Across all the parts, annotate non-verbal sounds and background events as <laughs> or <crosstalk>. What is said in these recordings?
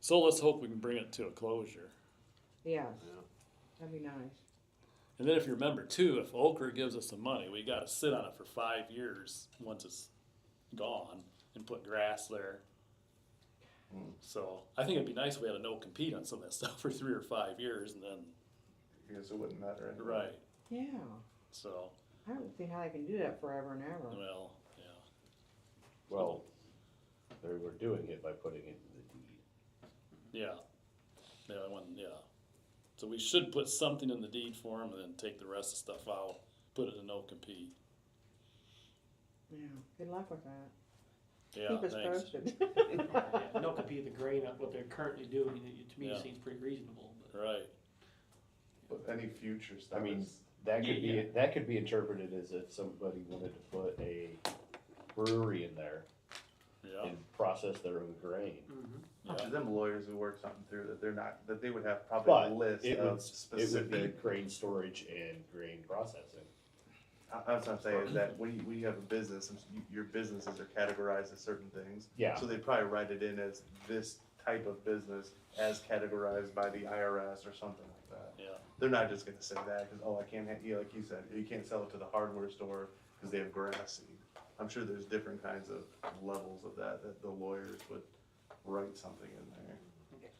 So let's hope we can bring it to a closure. Yeah, Yeah. that'd be nice. And then if you remember too, if Okra gives us some money, we gotta sit on it for five years once it's gone and put grass there. So I think it'd be nice if we had a no compete on some of that <laughs> stuff for three or five years and then, Because it wouldn't matter Hmm. anyway. right, Yeah, so, I don't see how they can do that forever and ever. well, yeah. Well, they were doing it by putting it in the deed. Yeah, yeah, I want, yeah. So we should put something in the deed for him and then take the rest of the stuff out, put it in no compete. Yeah, good luck with that. Yeah, Keep us thanks. posted. <laughs> <laughs> <laughs> Yeah, No compete the grain up what they're currently doing, it- to me Yeah. seems pretty reasonable, but. Right, But any future stuff. I mean, is- That could Yeah, be, that could be interpreted as if somebody wanted to put a brewery in there yeah, and process their own grain. Mhm. <laughs> yeah, to them lawyers who work something through that they're not that they would have probably But a list it of would, it would be specific. grain storage and grain processing. I, that's what I'm saying is that when you, when you have a business, and you, your businesses are categorized as certain things. Yeah, So they probably write it in as this type of business as categorized by the IRS or something like that. yeah, They're not just gonna say that because oh I can't ha- yeah, like you said you can't sell it to the hardware store because they have grass seed. I'm sure there's different kinds of levels of that that the lawyers would write something in there.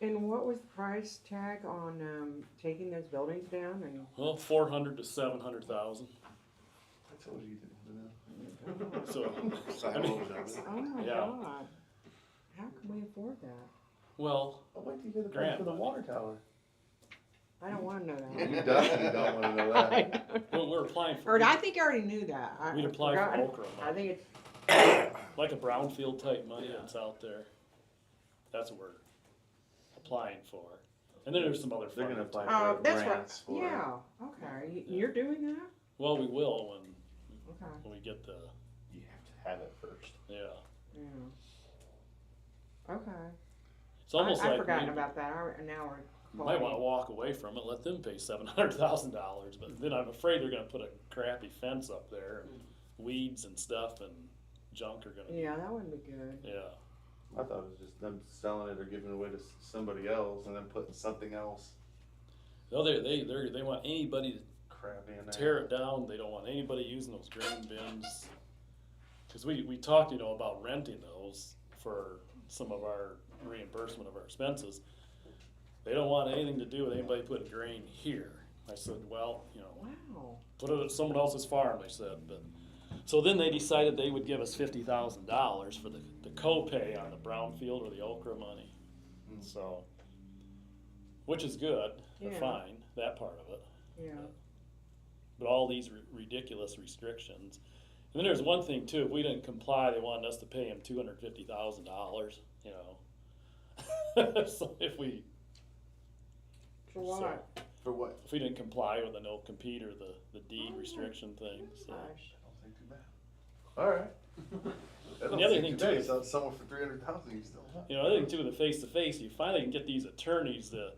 And what was the price tag on, um, taking those buildings down and? well, four hundred to seven hundred thousand, I told you didn't know. so, <laughs> Sign I mean- over that. <laughs> Oh my Yeah. god, how can we afford that? well, I'll wait till you hear the Grant price for the money. water tower. I don't wanna know <laughs> You <laughs> that. <laughs> definitely don't wanna know that. when we're applying for. Or I think I already knew that. I- We'd I apply for forgot. Okra I money, think it's, like a brownfield type money Yeah. that's out there. That's what we're applying for. And then there's some other. <laughs> They're gonna funding. apply oh, for grants that's for what, it. yeah, okay, You- you're doing that? Well, we will when, Okay, when we get the, you have to have it first. yeah, yeah. Okay. it's almost I, like. I forgotten we- about that, I, now we're. You might want to walk away from it, let them pay seven hundred thousand dollars, but then I'm afraid they're gonna put a crappy fence up there, and weeds and stuff and junk are gonna. Yeah, that wouldn't be good. Yeah, I thought it was just them selling it or giving it away to s- somebody else and then putting something else no, they they they they want anybody crappy in there. to tear it down. They don't want anybody using those grain bins. Cause we we talked, you know, about renting those for some of our reimbursement of our expenses. They don't want anything to do with anybody putting grain here. I said, well, you know, Wow. put it at someone else's farm, they said, but, so then they decided they would give us fifty thousand dollars for the, the co-pay on the brownfield or the okra money, Mm. so, which is good, they're Yeah. fine, that part of it, Yeah. but all these ri- ridiculous restrictions. And then there's one thing too, if we didn't comply, they wanted us to pay them two hundred fifty thousand dollars, you know? <laughs> So if we, For So- what? For what? if we didn't comply with the no compete or the, the deed Oh, restriction thing, so. Gosh. I don't think too bad. Alright. That And don't the other seem thing too bad. too- You sell it to someone for three hundred thousand, you still have. You know, I think too with the face to face, you finally can get these attorneys to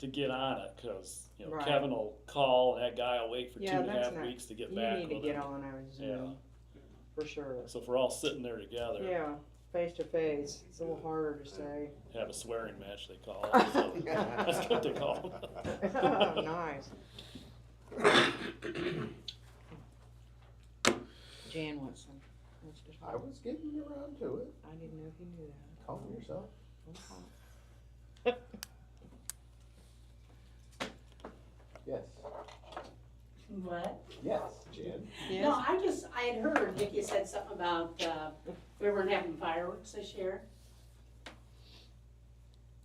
to get on it because you know Right. Kevin will call and that guy will wait for Yeah, two and a that's half not- weeks to get You back need to with get him. on our Yeah. Zoom, for sure. So if we're all sitting there together, Yeah, face to face, it's a little harder to <laughs> say. <laughs> have a swearing match. They call it. So that's what they call. it. <laughs> Oh, Nice. Jan wants some. Wants to talk. was getting around to it, I didn't know if you knew that. calm yourself. Yes, What? yes, Jen. No, Yes, I just, I had heard Nikki said something about, uh, we weren't having fireworks this year.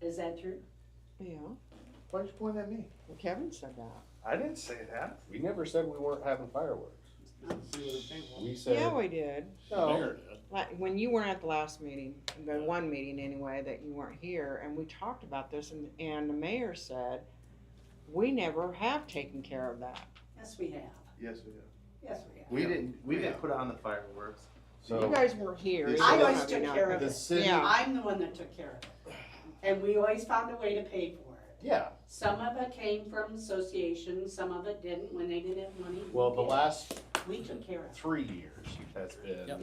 Is that true? yeah, Why'd you point at me? Well, Kevin said that. I didn't say that. We never said we weren't having fireworks. See what I'm saying. We Yeah, said, we did. no, Mayor did. Like, when you weren't at the last meeting, the one meeting anyway, that you weren't here, and we talked about this, and, and the mayor said, we never have taken care of that. Yes, we have. Yes, we did. Yes, we have. We didn't, we didn't put on the fireworks. You so guys weren't here. This- so Oh. I always how do you took know? care of the it. city, Yeah. I'm the one that took care of it. And we always found a way to pay for it. yeah, Some of it came from associations, some of it didn't, when they didn't have money. well, the last We took care of it. three years has been